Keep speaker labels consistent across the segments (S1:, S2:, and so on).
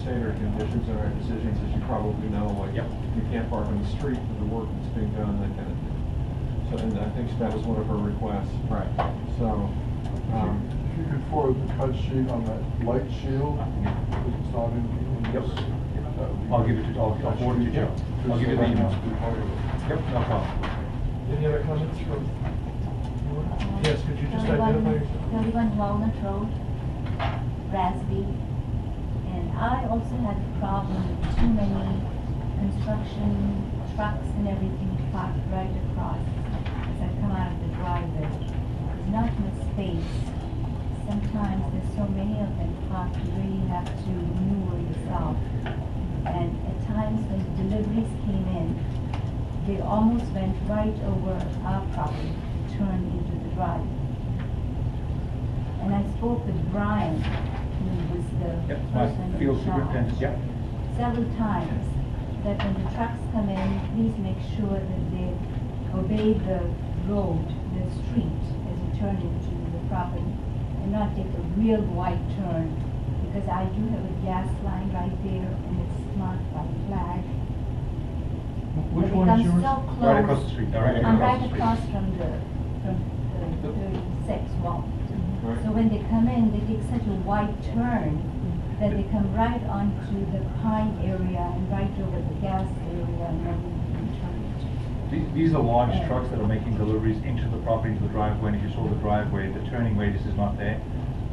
S1: standard conditions in our decisions, as you probably know, like
S2: Yep.
S1: you can't park on the street for the work that's being done, that kind of thing. So, and I think that was one of her requests.
S2: Right.
S1: So, um,
S3: If you could forward the cut sheet on that light shield, because it's not in. in
S2: Yep.
S3: this, that would be
S2: I'll give it to- I'll-
S3: great.
S2: I'll forward it to
S3: Yeah.
S2: Joe. I'll give you the
S3: Just so
S2: email.
S3: that it's part of it.
S2: Yep, no problem.
S4: Any other comments from? Yes, could you just
S5: 31
S4: identify yourself?
S5: Thirty-one Walnut Road, Rasby. And I also had a problem with too many construction trucks and everything parked right across. As I come out of the driveway, there's not much space. Sometimes there's so many of them parked, you really have to maneuver yourself. And at times when deliveries came in, they almost went right over our property to turn into the drive. And I spoke with Brian, who was the
S2: Yep,
S5: person
S2: my
S5: in
S2: field
S5: charge,
S2: superintendent, yep.
S5: several times, that when the trucks come in, please make sure that they obey the road, the street, as you turn into the property, and not take a real wide turn, because I do have a gas line right there, and it's marked by flag,
S4: Which one is yours?
S5: I'm so close.
S2: Right across the street, all right,
S5: I'm
S2: across the
S5: right
S2: street.
S5: across from the, from the
S1: Yep.
S5: thirty-six wall.
S1: Right.
S5: So when they come in, they take such a wide turn that they come right onto the pine area and right over the gas area and then we can turn.
S2: These- These are large trucks that are making deliveries into the property, into the driveway, and if you saw the driveway, the turning radius is not there.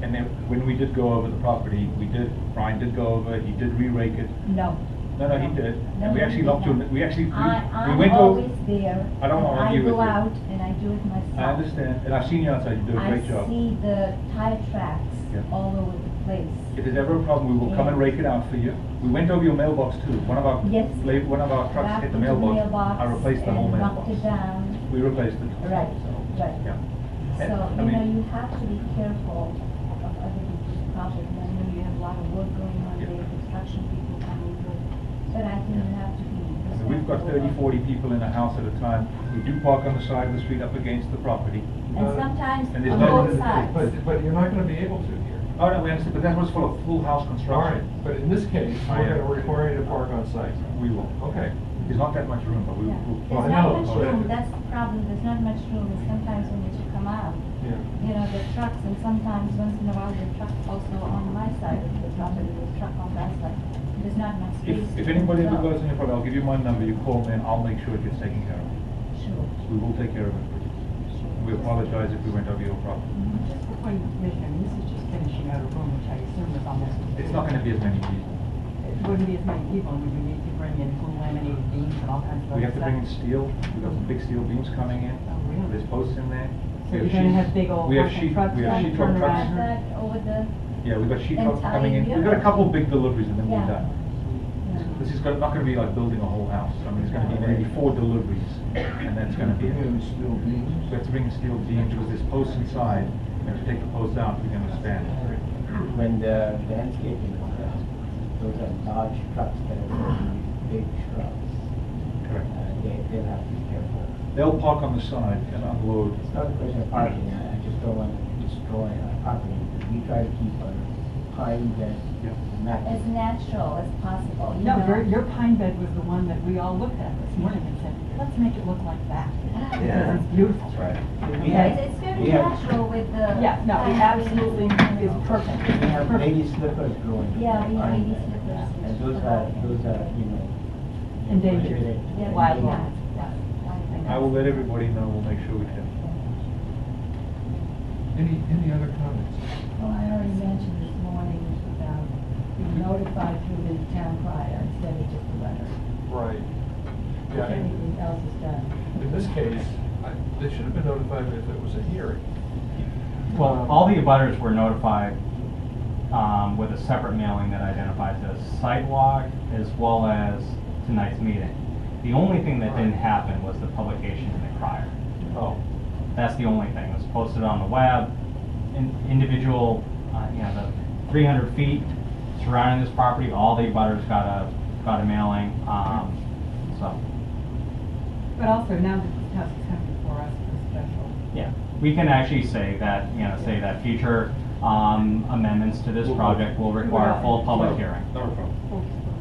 S2: And then, when we did go over the property, we did, Brian did go over, he did re-rake it.
S5: No.
S2: No, no, he did.
S5: No,
S2: And we
S5: no,
S2: actually
S5: he
S2: locked you,
S5: did
S2: in- we actually, we
S5: I,
S2: we
S5: I'm
S2: went over.
S5: always there.
S2: I don't wanna argue with
S5: go
S2: you.
S5: out and I do it myself.
S2: I understand, and I've seen you outside, you do a
S5: I
S2: great job.
S5: see the tire tracks
S2: Yeah.
S5: all over the place.
S2: If there's ever a problem, we will come and rake it out for you. We went over your mailbox too. One of our,
S5: Yes.
S2: la- one of our trucks hit the
S5: Back into
S2: mailbox. I replaced the whole mailbox.
S5: And knocked it down.
S2: We replaced it.
S5: Right, right.
S2: Yeah. And,
S5: So,
S2: I
S5: you know,
S2: mean-
S5: you have to be careful of other people's property. I know you have a lot of work going on
S2: Yeah.
S5: there, construction people coming through. But I think you have to be
S2: I
S5: respectful.
S2: mean, We've got 30, 40 people in a house at a time. We do park on the side of the street up against the property.
S5: And sometimes
S2: uh, And there's
S5: on
S2: no-
S5: both sides.
S1: But, but you're not gonna be able to here.
S2: Oh, no, we understand, but that was for a full house
S1: All right,
S2: construction.
S1: but in this case,
S2: I
S1: we're
S2: am.
S1: gonna require you to park on site.
S2: We will.
S1: Okay.
S2: There's not that much room, but we
S5: Yeah.
S2: will.
S1: Well, I
S5: There's not
S1: know,
S5: much
S1: but-
S5: room, that's the problem, there's not much room, and sometimes when you come out,
S1: Yeah.
S5: you know, the trucks, and sometimes once in a while, the truck also on my side of the property, the truck on that side. There's not
S2: If,
S5: much space.
S2: if
S5: to
S2: anybody ever
S5: go.
S2: goes in your property, I'll give you my number, you call me and I'll make sure it gets taken care of.
S5: Sure,
S2: We will take care of it.
S5: sure.
S2: We apologize if we went over your property.
S6: Just before you commission, I mean, this is just finishing out a room, which I assume is almost.
S2: It's not gonna be as many people.
S6: It wouldn't be as many people, and we would need to bring in blue laminated beams and all kinds of
S2: We
S6: other
S2: have to bring in
S6: stuff.
S2: steel, we've got some big steel beams coming in.
S6: Oh, really?
S2: There's posts in there.
S6: So
S2: We
S6: you're gonna
S2: sheet-
S6: have big old
S2: we have
S6: fucking
S2: sheet-
S6: trucks
S2: We have
S6: trying to
S2: sheet rock
S6: turn around.
S2: trucks.
S5: Add that over the,
S2: Yeah, we've got sheet rock
S5: Entire
S2: coming in. We've got a
S5: unit.
S2: couple big deliveries and then we're
S5: Yeah.
S2: done.
S5: you know.
S2: This is gonna- not gonna be like building a whole house. I mean, it's gonna be maybe four deliveries, and that's gonna be it.
S3: And steel
S2: We
S3: beams.
S2: have to bring steel beams, because there's posts inside, we have to take the posts out, we're gonna expand.
S7: When the landscaping was done, those are large trucks that are really big trucks.
S2: Correct.
S7: Uh, They, they'll have to be careful.
S2: They'll park on the side and unload.
S7: It's not a question of parking, I, I just don't want to destroy our property. We try to keep our pines
S2: Yeah.
S7: and
S5: as
S7: matches.
S5: natural as possible, you
S6: No,
S5: know?
S6: your, your pine bed was the one that we all looked at this morning and said, let's make it look like that.
S5: Yeah.
S6: Because it's beautiful.
S2: Right.
S7: We have-
S5: It's it's very
S7: we have-
S5: natural with the.
S6: Yeah, no, it absolutely is perfect.
S7: We have
S6: Perfect.
S7: lady slippers growing. in
S5: Yeah,
S7: our
S5: we have
S7: pine
S5: lady
S7: bed.
S5: slippers.
S7: And those are, those are, you know.
S6: Endangered.
S7: prohibited.
S5: Yeah.
S6: Wild
S7: Endangered.
S6: ones, yes.
S2: I will let everybody know, we'll make sure we can.
S1: Any, any other comments?
S8: Well, I already mentioned this morning about being notified through the town crier instead of just a letter.
S1: Right.
S8: If
S1: Yeah, and-
S8: anything else is done.
S1: In this case, I- they should have been notified if it was a hearing.
S9: Well, all the abutters were notified um, with a separate mailing that identified the sidewalk as well as tonight's meeting. The only thing that didn't happen was the publication in the crier.
S1: Oh.
S9: That's the only thing. It was posted on the web. In- Individual, uh, you know, the 300 feet surrounding this property, all the abutters got a, got a mailing. um, So,
S6: But also now that this house is coming before us, it's special.
S9: yeah, we can actually say that, you know, say that future um, amendments to this project will require a full public hearing.
S2: Not a problem.